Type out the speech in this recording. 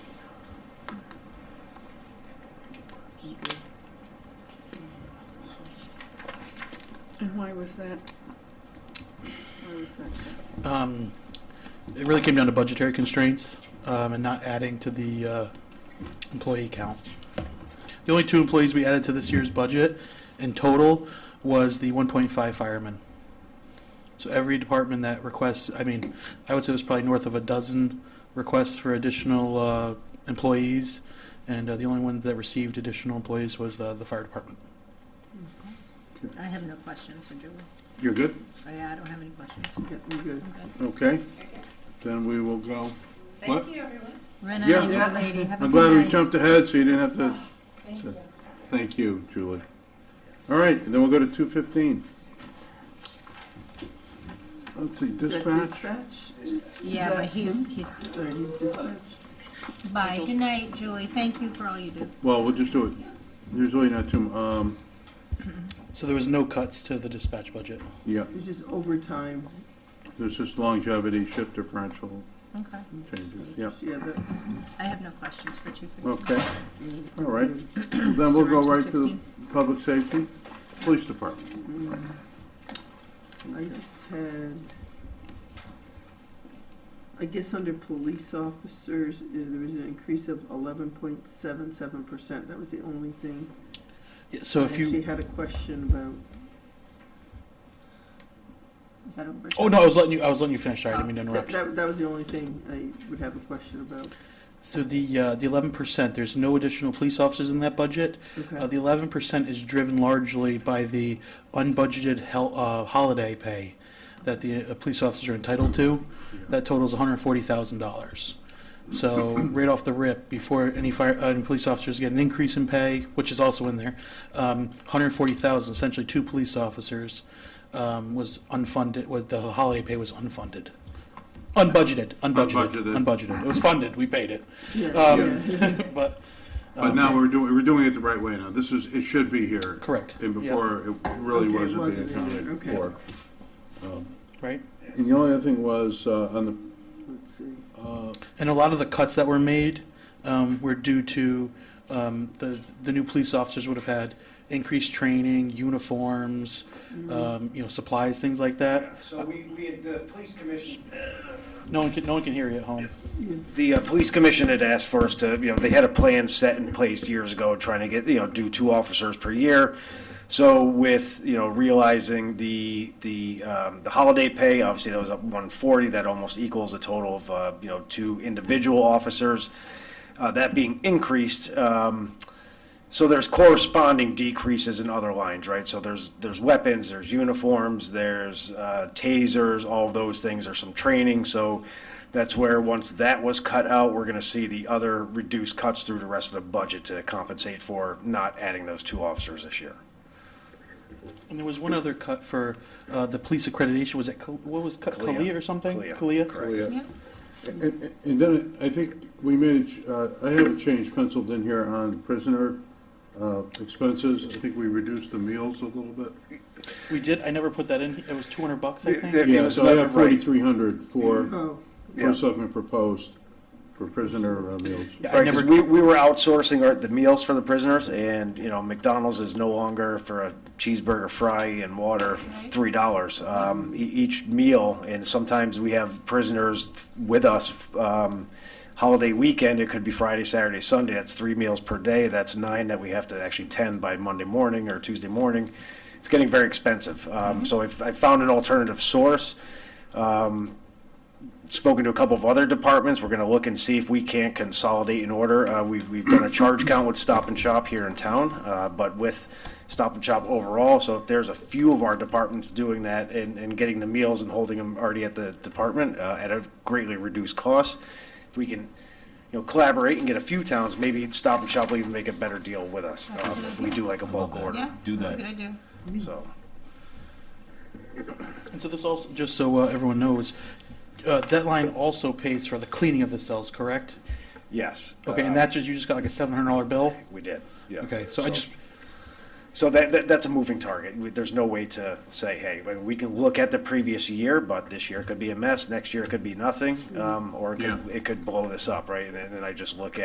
why was that? Why was that? Um, it really came down to budgetary constraints um, and not adding to the uh, employee count. The only two employees we added to this year's budget in total was the 1.5 firemen. So every department that requests, I mean, I would say there's probably north of a dozen requests for additional uh, employees, and uh, the only one that received additional employees was the, the fire department. I have no questions for Julie. You're good? Oh, Yeah, I don't have any questions. Yeah, we're good. I'm good. Okay. Then we will go. What? Thank you, everyone. Ren, Yeah. I'm a good lady. Have a I'm glad we good night. jumped ahead so you didn't have to. Thank you. Thank you, Julie. All right, and then we'll go to two fifteen. Let's see, Is that dispatch. Dispatch? Yeah, but he's, he's, Or he's dispatch? bye. Good night, Julie. Thank you for all you do. Well, we'll just do it. There's really not too, m- um, So there was no cuts to the dispatch budget. yeah, It's just overtime. there's just longevity, shift differential Okay. changes, Mm-hmm. yeah. Yeah, but I have no questions for two fifty. Okay, all right. Mm-hmm. Then we'll go right to the public safety, police department. I just mm, had, I guess under police officers, uh, there was an increase of eleven point seven seven percent. That was the only thing Yeah, I so if actually you, had a question about. Is that over? oh no, I was letting you, I was letting you finish. Sorry, I didn't mean to That, interrupt. you. Uh, that, that was the only thing I would have a question about. So the uh, the eleven percent, there's no additional police officers in that budget. Uh, Okay, the eleven percent is driven largely by the unbudgeted hel- uh, holiday pay that the uh, police officers are entitled to. That totals one hundred forty thousand dollars. So right off the rip, before any fire uh, any police officers get an increase in pay, which is also in there, um, one hundred forty thousand, essentially two police officers, um, was unfunded. Was the holiday pay was unfunded. Unbudgeted, unbudgeted, Unbudgeted. unbudgeted. It was funded. We paid it. yeah, Um, yeah. but, But now we're doing, we're doing it the right way now. This is, it should be here. Correct. And before, it really Okay, it wasn't being wasn't in there, accounted okay. for. right? And the only other thing was, uh, on the Let's see. Uh, And a lot of the cuts that were made um, were due to um, the the new police officers would have had increased training, uniforms, um, you know, supplies, things like that. So we, we, had the police commission, No one can no one can hear you at home. the uh, police commission had asked for us to, you know, they had a plan set in place years ago, trying to get, you know, do two officers per year. So with, you know, realizing the, the, um, the holiday pay, obviously that was up one forty, that almost equals a total of, uh, you know, two individual officers. Uh, that being increased, um, So there's corresponding decreases in other lines, right? So there's, there's weapons, there's uniforms, there's uh, tasers, all of those things, there's some training. So that's where, once that was cut out, we're gonna see the other reduced cuts through the rest of the budget to compensate for not adding those two officers this year. And there was one other cut for uh, the police accreditation. Was it Cal- what was cut Kalia. Kalia or something? Kalia, oh, yeah. Yeah. And, and- and then I think we made, a ch- uh, I have a change penciled in here on prisoner uh, expenses. I think we reduced the meals a little bit. We did. I never put that in. It was two hundred bucks, I think. Yeah, yeah, So I have right. forty-three hundred for, Oh, for something proposed for prisoner uh, meals. Yeah, I Right, 'cause never. we, we were outsourcing our, the meals for the prisoners, and, you know, McDonald's is no longer for a cheeseburger, fry, and water, three dollars, um, e- each meal, and sometimes we have prisoners with us, um, holiday weekend, it could be Friday, Saturday, Sunday, that's three meals per day, that's nine that we have to actually tend by Monday morning or Tuesday morning. It's getting very expensive, um, so I've, I found an alternative source, um, spoken to a couple of other departments. We're going to look and see if we can't consolidate an order. Uh, We've, we've done a charge count with Stop and Shop here in town, uh, but with Stop and Shop overall, so if there's a few of our departments doing that and, and getting the meals and holding them already at the department uh, at a greatly reduced cost, if we can, you know, collaborate and get a few towns, maybe Stop and Shop will even make a better deal with us uh, if we do like a bulk order, Yeah, Do that's a that. good idea. so. And so this also, just so uh, everyone knows, uh, that line also pays for the cleaning of the cells, correct? Yes. Okay, and uh, that just you just got like a seven hundred dollar bill. We did, yeah. Okay, so I just So that, that, that's a moving target. We- There's no way to say, hey, I mean, we can look at the previous year, but this year could be a mess, next year it could be nothing, um, or it could, Yeah. it could blow this up, right? And then and I just look at.